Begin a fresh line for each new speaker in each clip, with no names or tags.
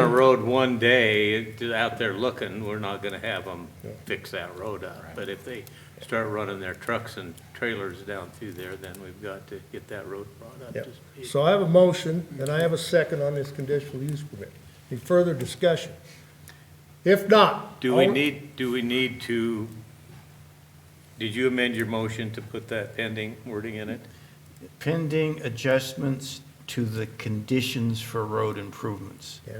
that road one day, out there looking, we're not gonna have them fix that road up. But if they start running their trucks and trailers down through there, then we've got to get that road brought up
Yep.
to speed.
So I have a motion, and I have a second on this conditional use permit. Any further discussion? If not.
Do we
all-
need, do we need to, did you amend your motion to put that pending wording in it?
Pending adjustments to the conditions for road improvements.
Yeah.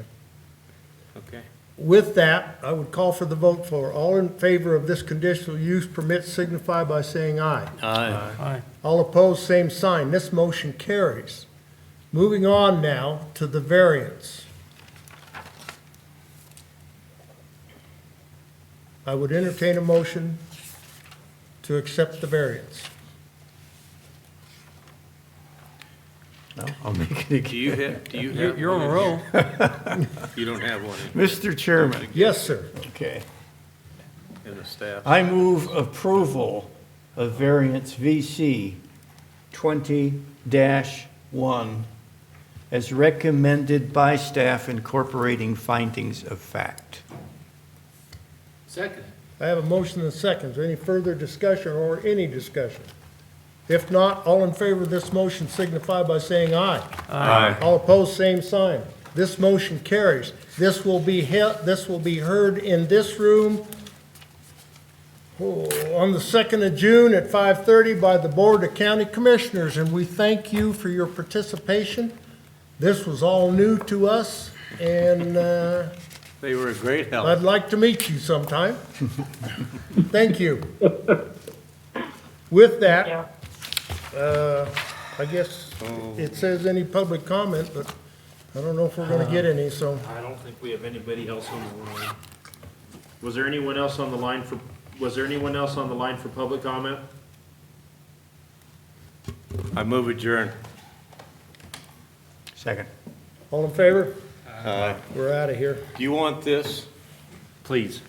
Okay.
With that, I would call for the vote for all in favor of this conditional use permit signify by saying aye.
Uh, Aye.
All opposed, same sign. This motion carries. Moving on now to the variance. I would entertain a motion to accept the variance.
Oh, No, I'll make it
Do
again.
you have, do you have? You're on a roll. You don't have one
Mr. Chairman,
Yes, sir.
okay.
in, in the staff.
I move approval of variance VC 20-1 as recommended by staff incorporating findings of fact.
Second.
I have a motion and a second. Is there any further discussion or any discussion? If not, all in favor of this motion signify by saying aye. Aye. All opposed, same sign. This motion carries. This will be he- this will be heard in this room oh, on the second of June at five thirty by the Board of County Commissioners, and we thank you for your participation. This was all new to us, and, uh,
They were a great help.
I'd like to meet you sometime. Thank you. With that, uh, I guess it says any public comment, but I don't know if we're gonna get any, so.
I don't think we have anybody else on the line. Was there anyone else on the line for, was there anyone else on the line for public comment?
I move adjourn.
Second.
All in favor? We're out of here.
Do you want this?
Please.